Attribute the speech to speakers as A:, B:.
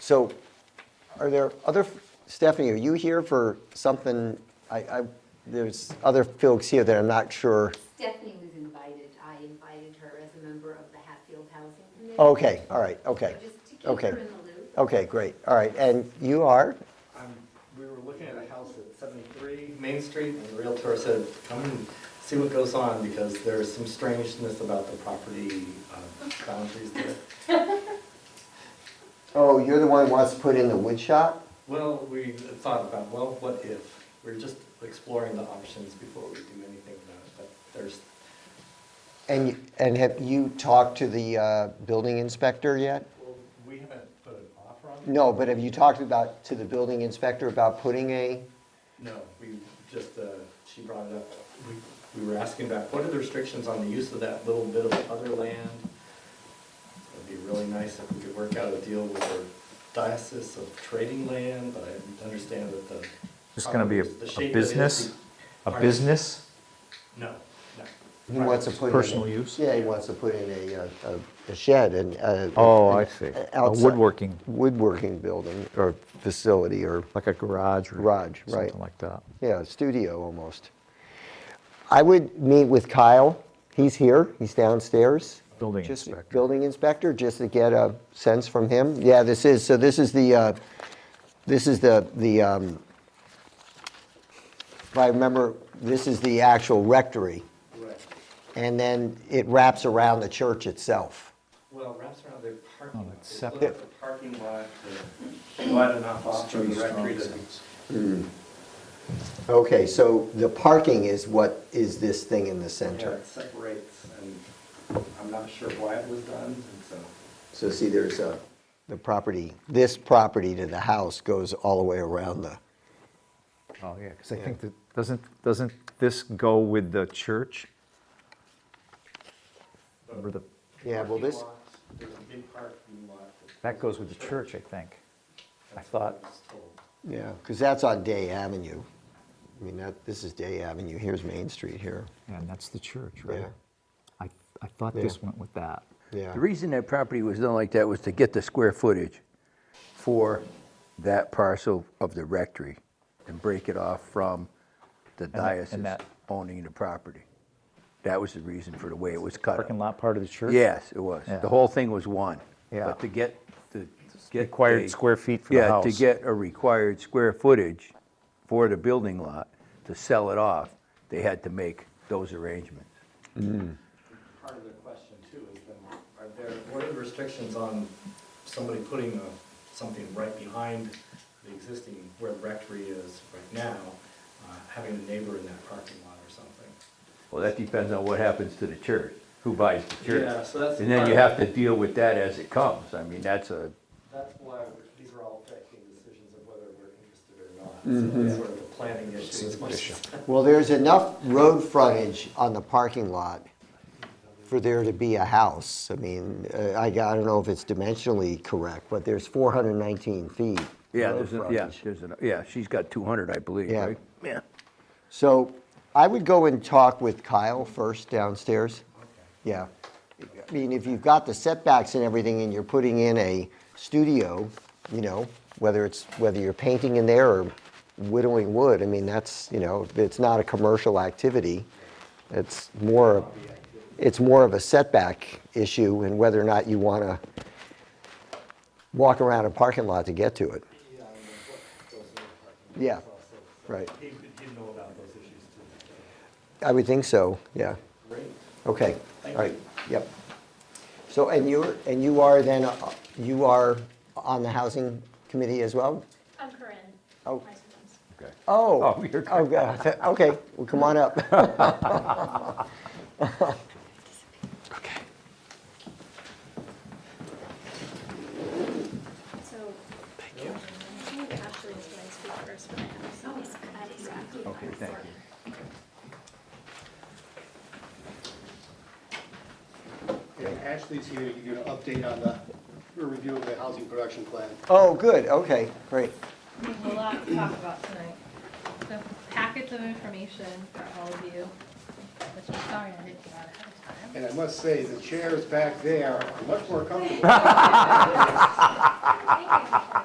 A: So are there other, Stephanie, are you here for something? I, I, there's other folks here that I'm not sure.
B: Stephanie was invited, I invited her as a member of the Hatfield Housing Committee.
A: Okay, all right, okay.
B: So Just to keep
A: Okay.
B: her in the loop.
A: Okay, great, all right. And you are?
C: Um, we were looking at a house at seventy-three Main Street, and the Realtor said, come and see what goes on, because there's some strangeness about the property uh, boundaries there.
A: Oh, you're the one who wants to put in the wood shop?
C: Well, we thought about, well, what if? We're just exploring the options before we do anything about it, but there's,
A: And, you- and have you talked to the uh, building inspector yet?
C: well, we haven't put an offer on it.
A: No, but have you talked about, to the building inspector about putting a,
C: No, we just, uh, she brought it up, we, we were asking about, what are the restrictions on the use of that little bit of other land? It'd be really nice if we could work out a deal with our diocese of trading land, but I understand that the.
D: It's gonna be a,
C: the shape of it
D: a
C: is
D: business,
C: the-
D: a business?
C: No, no.
A: he wants to put in? a-
D: Personal use?
A: Yeah, he wants to put in a, uh, a- a shed and. uh,
D: Oh, I
A: an-
D: see.
A: an
D: A
A: outside-
D: woodworking.
A: Woodworking building or facility or,
D: Like a garage or
A: Garage, right.
D: something like that.
A: yeah, studio almost. I would meet with Kyle. He's here, he's downstairs.
D: Building
A: Just-
D: inspector.
A: Building inspector, just to get a sense from him. Yeah, this is, so this is the, uh, this is the, the, um, if I remember, this is the actual rectory.
C: Right.
A: And then it wraps around the church itself.
C: Well, it wraps around their parking
D: Oh,
C: lot.
D: it's
C: They split
D: separate.
C: up the parking lot, to wide enough off for the rectory to.
A: Okay, so the parking is what is this thing in the
C: Yeah,
A: center?
C: it separates, and I'm not sure why it was done, and so.
A: So see, there's a, the property, this property to the house goes all the way around the,
D: Oh, yeah, because I think that, doesn't, doesn't this go with the church? Remember the,
A: yeah, well, this,
C: Parking lots, There's a big parking lot.
D: that goes with the church, I think. I
C: That's what
D: thought,
C: was told.
A: yeah, because that's on Day Avenue. I mean, that, this is Day Avenue, here's Main Street here.
D: yeah, and that's the church, right?
A: Yeah.
D: I, I thought
A: Yeah.
D: this went with that.
A: Yeah,
E: The reason that property was done like that was to get the square footage for that parcel of the rectory and break it off from the
D: that- and
E: diocese
D: that-
E: owning the property. That was the reason for the way it was cut up.
D: Parking lot part of the church?
E: Yes, it was.
D: Yeah.
E: The whole thing was one.
D: Yeah.
E: But to get, to get.
D: Required
E: a-
D: square feet for the house.
E: Yeah, to get a required square footage for the building lot, to sell it off, they had to make those arrangements.
C: Part of the question too is then, are there, what are the restrictions on somebody putting a- something right behind the existing, where the rectory is right now, uh, having a neighbor in that parking lot or something?
E: Well, that depends on what happens to the church, who buys the church.
C: Yeah, so that's
E: And then you
C: part of
E: have to deal with that as it comes. I mean, that's a,
C: That's why these are all affecting decisions of whether we're interested or not. So it's sort of a planning issue as much as.
A: well, there's enough road frontage on the parking lot for there to be a house. I mean, uh, I, I don't know if it's dimensionally correct, but there's 419 feet.
E: yeah,
A: road
E: there's, a- yeah,
A: frontage.
E: there's, a- yeah, she's got 200, I believe,
A: Yeah.
E: right? Yeah.
A: So I would go and talk with Kyle first downstairs. Yeah. I mean, if you've got the setbacks and everything and you're putting in a studio, you know, whether it's, whether you're painting in there or whittling wood, I mean, that's, you know, it's not a commercial activity. It's more, it's more of a setback issue and whether or not you want to walk around a parking lot to get to it. Yeah, right.
C: He, he know about those issues too.
A: I would think so, yeah.
C: Great.
A: Okay, all
C: Thank
A: right,
C: you.
A: yep. So, and you're, and you are then, uh, you are on the housing committee as well?
F: I'm Corinne.
A: Oh.
F: Nice to meet you.
E: Okay.
A: Oh.
E: Oh, you're-
A: Oh, God, okay, well, come on up.
F: So. Thank you. Actually, it's when I speak first, but I have some exactly.
E: Okay, thank you.
G: And Ashley's here to give you an update on the a review of the housing production plan.
A: Oh, good, okay, great.
H: a lot to talk about tonight. So packets of information for all of you, which I'm sorry I didn't get out ahead of time.
G: And I must say, the chairs back there are much more comfortable.